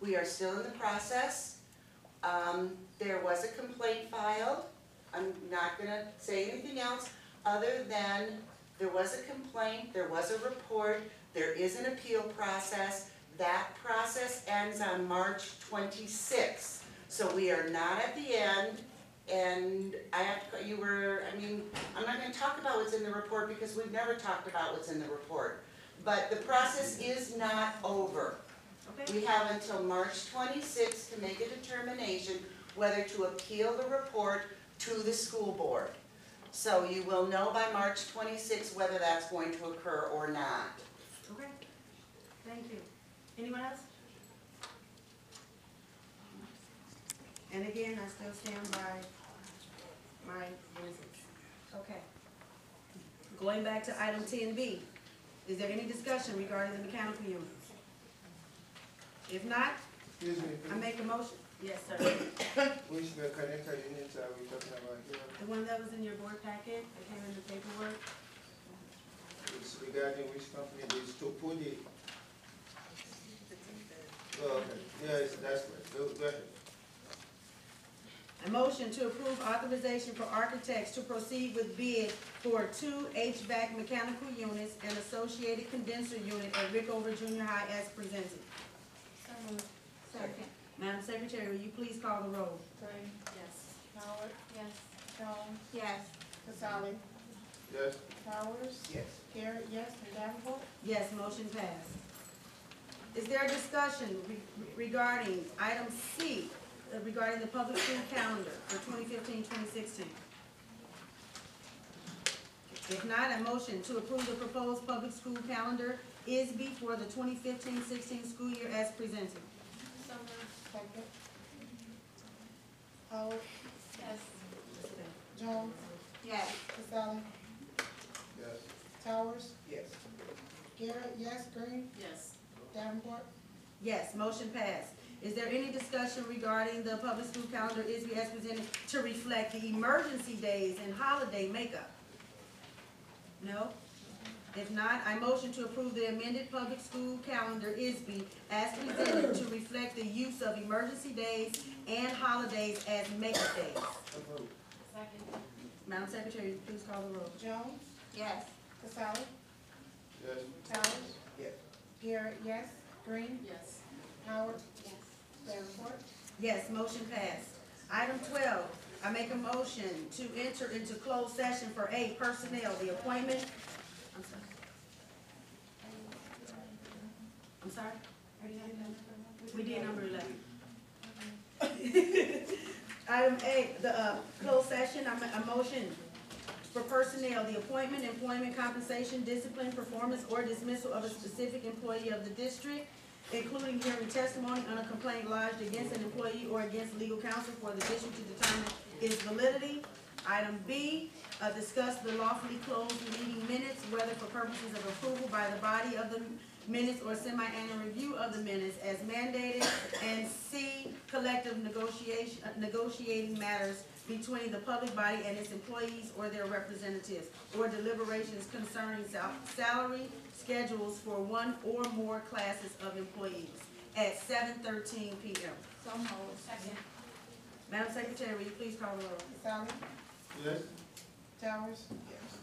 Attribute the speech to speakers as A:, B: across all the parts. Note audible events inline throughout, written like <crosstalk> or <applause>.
A: We are still in the process. Um, there was a complaint filed. I'm not gonna say anything else other than there was a complaint, there was a report, there is an appeal process. That process ends on March twenty-sixth. So we are not at the end and I have to, you were, I mean, I'm not gonna talk about what's in the report because we've never talked about what's in the report. But the process is not over.
B: Okay,
A: We have until March twenty-sixth to make a determination whether to appeal the report to the school board. So you will know by March twenty-sixth whether that's going to occur or not.
B: okay. Thank you. Anyone else? And again, I still stand by my reasons. Okay. Going back to item ten B, is there any discussion regarding the mechanical units? If not,
C: Excuse me,
B: I make a motion. Yes, sir.
C: which mechanical units are we talking about here?
B: The one that was in your board packet, that came in the paperwork?
C: It's regarding which company, it's Topodi. Oh, okay, yes, that's right, go, go ahead.
B: A motion to approve authorization for architects to proceed with bid for two HVAC mechanical units and associated condenser unit at Rickover Junior High as presented.
D: So moved. Second.
B: Madam Secretary, will you please call the roll?
D: Green. Yes. Howard. Yes. Jones. Yes. Casali.
C: Yes,
D: Powers.
C: Yes.
D: Garrett, yes, and Davenport.
B: Yes, motion passed. Is there a discussion re- regarding item C, uh, regarding the public school calendar for 2015-2016? If not, a motion to approve the proposed public school calendar is before the 2015-16 school year as presented.
D: So moved. Second. Howard. Yes. Jones.
B: Yes.
D: Casali.
C: yes.
D: Towers.
C: Yes.
D: Garrett, yes. Green.
B: Yes.
D: Davenport.
B: Yes, motion passed. Is there any discussion regarding the public school calendar is as presented to reflect the emergency days and holiday makeup? No? If not, I motion to approve the amended public school calendar ISB as presented to reflect the use of emergency days and holidays as makeup days.
D: Second.
B: Madam Secretary, please call the roll.
D: Jones.
B: Yes.
D: Casali.
C: Yes,
D: Towers.
C: Yes.
D: Garrett, yes. Green.
B: Yes.
D: Howard. Yes. Davenport.
B: Yes, motion passed. Item twelve, I make a motion to enter into closed session for A, personnel, the appointment. I'm sorry. I'm sorry? We did number eleven. <laughs> Item A, the, uh, closed session, I'm, a motion for personnel, the appointment, employment, compensation, discipline, performance, or dismissal of a specific employee of the district, including hearing testimony on a complaint lodged against an employee or against legal counsel for the district to determine its validity. Item B, uh, discuss the lawfully closed meeting minutes, whether for purposes of approval by the body of the minutes or semi-annual review of the minutes as mandated. And C, collective negotiation, uh, negotiating matters between the public body and its employees or their representatives, or deliberations concerning sal- salary schedules for one or more classes of employees at seven thirteen P M.
D: So moved. Second.
B: Madam Secretary, will you please call the roll?
D: Casali.
C: yes,
D: Towers.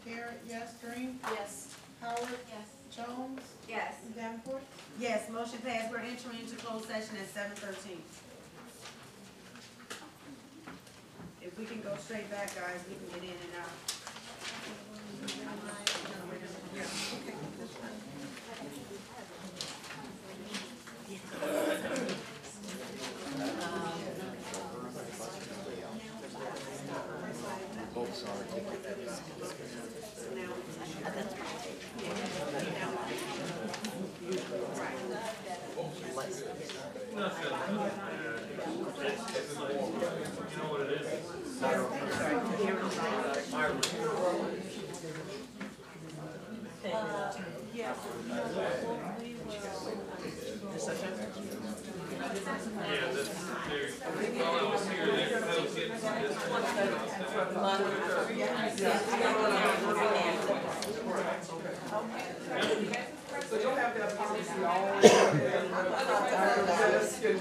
D: Garrett, yes. Green.
B: Yes.
D: Howard.
B: Yes.
D: Jones.
B: Yes.
D: Davenport.
B: Yes, motion passed. We're entering into closed session at seven thirteen. If we can go straight back, guys, we can get in and out.